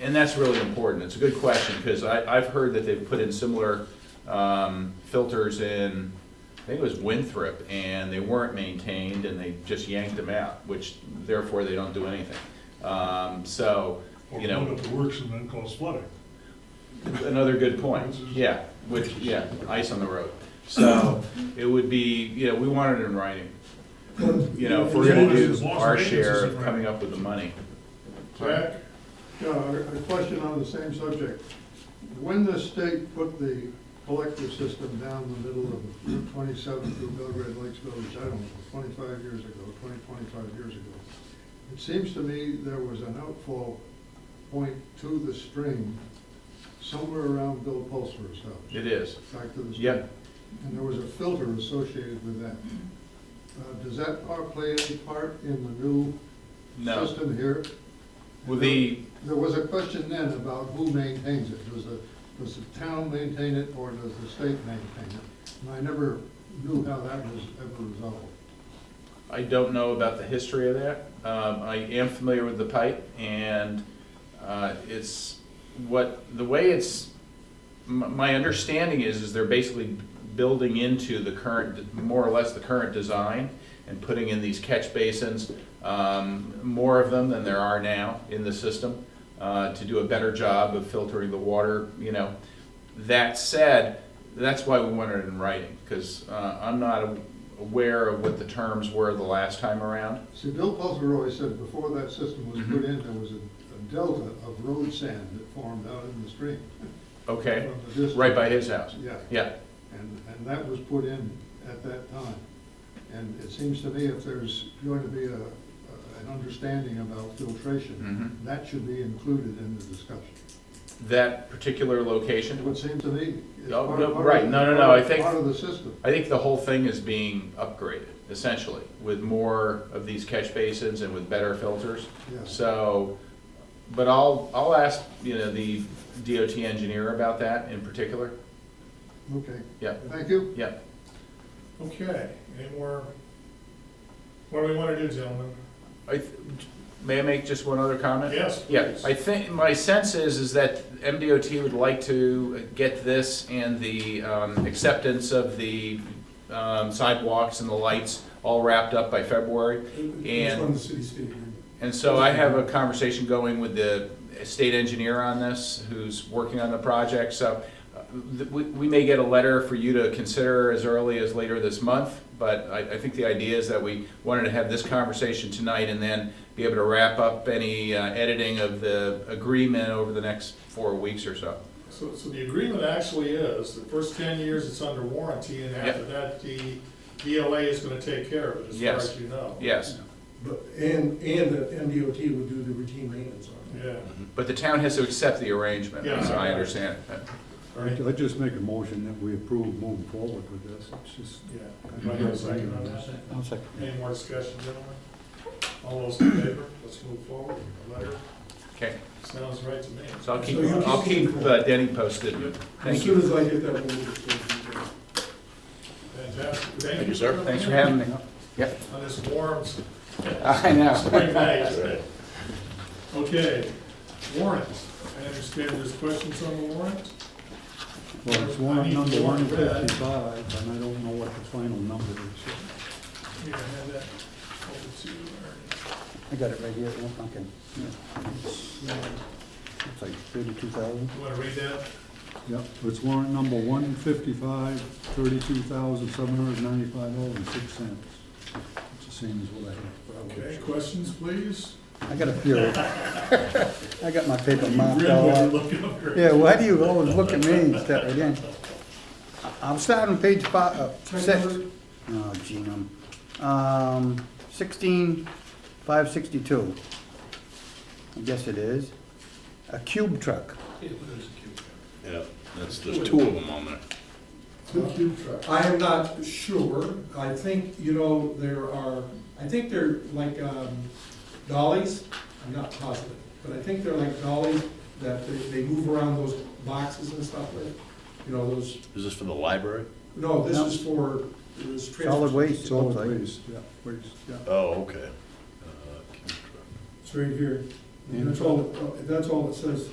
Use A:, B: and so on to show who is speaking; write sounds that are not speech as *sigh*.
A: And that's really important. It's a good question, because I, I've heard that they've put in similar um, filters in, I think it was Winthrop, and they weren't maintained, and they just yanked them out, which therefore they don't do anything. Um, So,
B: Or
A: you
B: put
A: know,
B: up the works and then cause flooding.
A: another good point, yeah, which, yeah, ice on the road. So it would be, you know, we want it in writing, you know, if we're gonna do
B: As long as- as long as
A: our
B: maintenance
A: share
B: is
A: of
B: in
A: coming
B: writing.
A: up with the money.
C: Jack, uh, a question on the same subject. When the state put the collector system down the middle of twenty-seven through Belgrade Lakes Village, I don't know, twenty-five years ago, 20, 25 years ago, it seems to me there was an outfall point to the stream somewhere around Bill Pulsar's house,
A: It is,
C: back to the stream.
A: Yep.
C: And there was a filter associated with that. Uh, Does that part play any part in the new
A: no.
C: system here?
A: Well, the,
C: There was a question then about who maintains it. Does the, does the town maintain it or does the state maintain it? And I never knew how that was ever resolved.
A: I don't know about the history of that. Um, I am familiar with the pipe, and uh, it's what the way it's. m- My understanding is is they're basically building into the current, more or less the current design, and putting in these catch basins, um, more of them than there are now in the system, uh, to do a better job of filtering the water. You know, that said, that's why we wanted it in writing, because I'm not a- aware of what the terms were the last time around.
C: See, Bill Pulser always said before that system was put in, there was a a delta of road sand that formed out in the stream.
A: Okay,
C: from the district.
A: right by his house.
C: Yeah,
A: Yeah,
C: and, and that was put in at that time. And it seems to me if there's going to be a, an understanding about filtration,
A: Mhm.
C: that should be included in the discussion.
A: that particular
C: It
A: location.
C: would seem to me. it's
A: Oh,
C: part-
A: no,
C: part of-
A: right. No, no, no, I think-
C: Part of the system.
A: I think the whole thing is being upgraded essentially with more of these catch basins and with better filters.
C: Yeah.
A: So, but I'll, I'll ask, you know, the DOT engineer about that in particular.
C: Okay,
A: Yeah,
C: thank you.
A: yeah.
B: Okay, any more? What do we want to do, gentlemen?
A: I, th- may I make just one other comment?
B: Yes,
A: Yeah,
B: please.
A: I think, my sense is, is that MDOT would like to get this and the um, acceptance of the um, sidewalks and the lights all wrapped up by February.
D: It's
A: And-
D: from the city state agreement.
A: And so I have a conversation going with the state engineer on this, who's working on the project, so uh, th- we, we may get a letter for you to consider as early as later this month, but I, I think the idea is that we wanted to have this conversation tonight and then be able to wrap up any uh, editing of the agreement over the next four weeks or so.
B: So, so the agreement actually is, the first ten years it's under warranty, and after
A: Yep.
B: that, the DLA is gonna take care of it, as far
A: Yes.
B: as you know.
A: Yes,
D: But, and, and that MDOT would do the routine maintenance on it.
B: Yeah.
A: but the town has to accept the arrangement,
B: Yeah.
A: as I understand it.
B: Ernie?
E: I'd just make a motion that we approve moving forward with this. It's just,
B: Yeah. Do I hear a second on that?
E: I'll second.
B: Any more discussion, gentlemen? All those in favor, let's move forward. The letter
A: Okay,
B: sounds right to me.
A: so I'll keep,
D: So you
A: I'll
D: keep-
A: keep uh, Denny posted.
D: As
A: Thank you.
D: soon as I get that, we'll move it forward.
B: Fantastic. Thank you.
A: Thanks for having me. Yep.
B: On this warm *laughs*
A: I know.
B: spring night. Okay, warrants. I understand there's questions on the warrant?
E: Well, it's warrant number one fifty-five, and I don't know what the final number is.
B: Here, I have that over to Ernie.
E: I got it right here, one second. It's like thirty-two thousand.
B: You wanna read that?
E: Yep, it's warrant number one fifty-five, thirty-two thousand, seven hundred ninety-five dollars and six cents. It's the same as what I have.
B: Okay, questions, please?
E: I got a few. *laughs* I got my paper
B: You
E: marked
B: grin
E: all
B: when
E: out.
B: you look over.
E: Yeah, why do you always look at me and step right in? I- I'm starting on page five, uh, six. Oh, genome. Um, sixteen, five sixty-two. I guess it is. A cube truck.
F: Yeah, that's, there's two of them on there.
D: Two cube trucks. I am not sure. I think, you know, there are, I think they're like um, dollies. I'm not positive, but I think they're like dollies that they, they move around those boxes and stuff with. You know, those,
F: Is this for the library?
D: no, this is for, it was.
E: Solid waste, it looks Solid like. waste, yeah, waste, yeah.
F: Oh, okay. Uh,
D: It's right here.
E: And-
D: That's all, that's all it says.